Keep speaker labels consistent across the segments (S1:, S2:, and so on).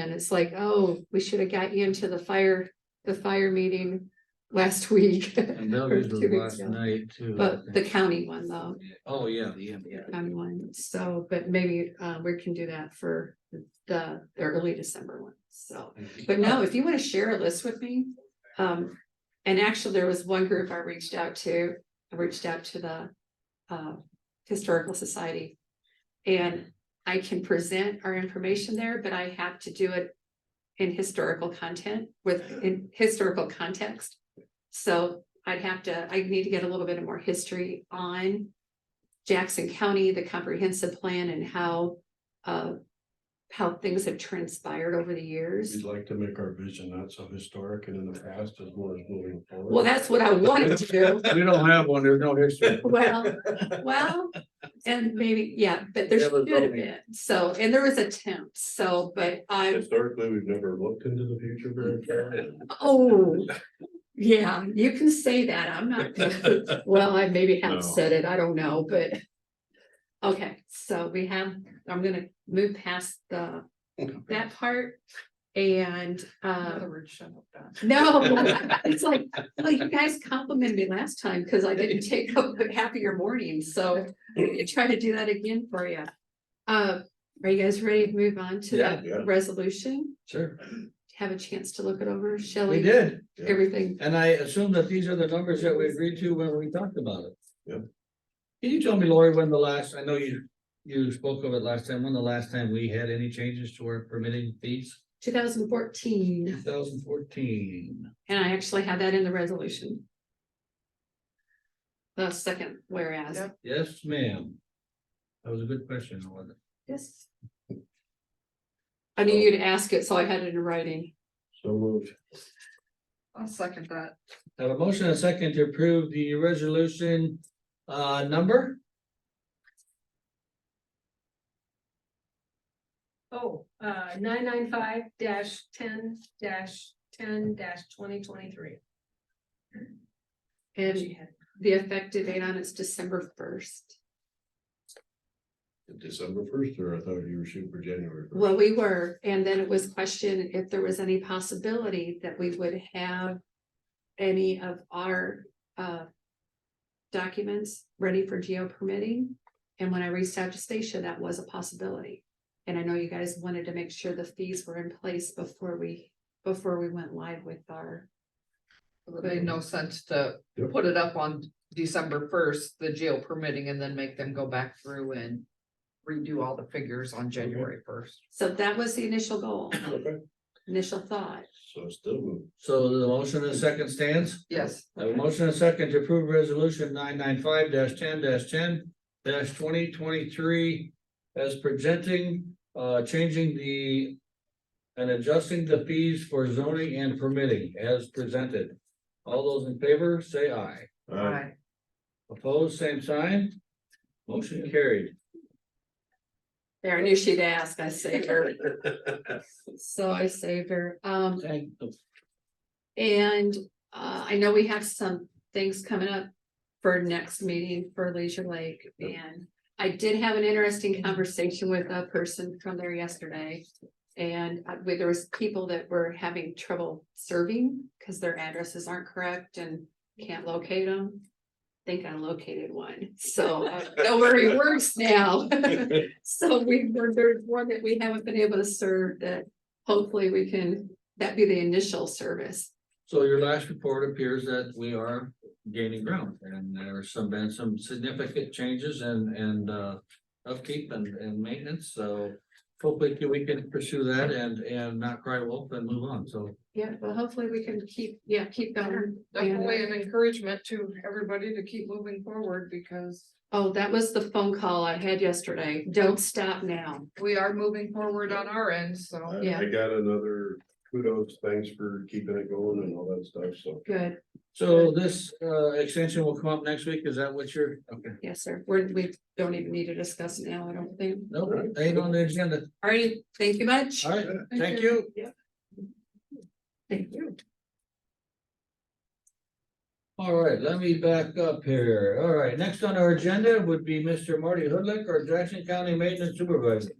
S1: And it's like, oh, we should have got you into the fire, the fire meeting last week.
S2: And Belgium was last night too. I
S1: But the
S2: think.
S1: county one though,
S2: Oh, yeah, yeah, yeah.
S1: county one, so, but maybe uh we can do that for the the early December one, so. But no, if you want to share a list with me, um, and actually there was one group I reached out to, I reached out to the. Uh, Historical Society. And I can present our information there, but I have to do it. In historical content with in historical context. So I'd have to, I need to get a little bit more history on. Jackson County, the comprehensive plan and how, uh. How things have transpired over the years.
S3: We'd like to make our vision not so historic and in the past as well as moving forward.
S1: Well, that's what I wanted to do.
S2: We don't have one, there's no history.
S1: Well, well, and maybe, yeah, but there
S2: That was
S1: should have
S2: only-
S1: been, so, and there was attempts, so, but I,
S3: Historically, we've never looked into the future very far.
S1: oh. Yeah, you can say that, I'm not, gonna- well, I maybe
S3: No.
S1: have said it, I don't know, but. Okay, so we have, I'm gonna move past the, that part and, uh. No, it's like, well, you guys complimented me last time because I didn't take up half of your morning, so I try to do that again for you. Uh, are you guys ready to move on to
S2: Yeah,
S1: the
S3: yeah.
S1: resolution?
S2: Sure,
S1: Have a chance to look it over,
S2: we
S1: Shelley,
S2: did,
S1: everything.
S2: and I assume that these are the numbers that we agreed to when we talked about it.
S3: Yep.
S2: Can you tell me, Lori, when the last, I know you, you spoke of it last time, when the last time we had any changes to our permitting fees?
S1: Two thousand fourteen,
S2: Two thousand fourteen.
S1: and I actually had that in the resolution. The second whereas,
S4: Yep.
S2: Yes, ma'am. That was a good question, wasn't it?
S1: yes. I knew you'd ask it, so I had it in writing.
S3: So moved.
S4: I'll second that.
S2: Have a motion and a second to approve the resolution, uh, number?
S5: Oh, uh, nine nine five dash ten dash ten dash twenty twenty-three.
S1: And the effective date on it's December first.
S3: December first, or I thought you were shooting for January. 1st.
S1: Well, we were, and then it was questioned if there was any possibility that we would have any of our uh documents ready for geo permitting. And when I reached out to Stacia, that was a possibility. And I know you guys wanted to make sure the fees were in place before we, before we went live with our.
S4: It made no sense to
S3: Yep.
S4: put it up on December first, the jail permitting, and then make them go back through and redo all the figures on January first.
S1: So that was the initial goal,
S3: Okay,
S1: initial thought.
S3: so it's still moved.
S2: So the motion and second stands.
S4: Yes,
S2: Have a motion and second to approve resolution nine nine five ten ten twenty twenty-three as presenting, uh, changing the and adjusting the fees for zoning and permitting as presented. All those in favor, say aye.
S3: Aye.
S4: Aye.
S2: Opposed, same sign. Motion carried.
S1: There, I knew she'd ask, I saved her. So I saved her, um.
S2: Thank-
S1: And uh, I know we have some things coming up for next meeting for Leisure Lake and I did have an interesting conversation with a person from there yesterday. And uh, where there was people that were having trouble serving because their addresses aren't correct and can't locate them. Think I located one, so uh, don't worry, works now. So we, there- there's one that we haven't been able to serve that hopefully we can, that be the initial service.
S2: So your last report appears that we are gaining ground and there are some, been some significant changes and, and, uh, upkeep and, and maintenance, so hopefully we can pursue that and, and not cry wolf and move on, so.
S1: Yeah, well, hopefully we can keep, yeah, keep going. Oh,
S4: Definitely an encouragement to everybody to keep moving forward because
S1: Oh, that was the phone call I had yesterday. Don't stop now.
S4: we are moving forward on our end, so.
S3: I
S1: Yeah.
S3: I got another kudos, thanks for keeping it going and all that stuff, so.
S1: Good.
S2: So this, uh, extension will come up next week, is that what you're, okay,
S1: Yes, sir. We're, we don't even need to discuss it now, I don't think.
S2: no, ain't on the agenda,
S1: All right, thank you much.
S2: all right, thank you.
S1: Thank you.
S2: All right, let me back up here, all right, next on our agenda would be Mr. Marty Hoodlick, our Jackson County Maintenance Supervisor.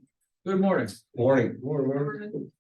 S2: Good morning.
S3: Morning. Morning.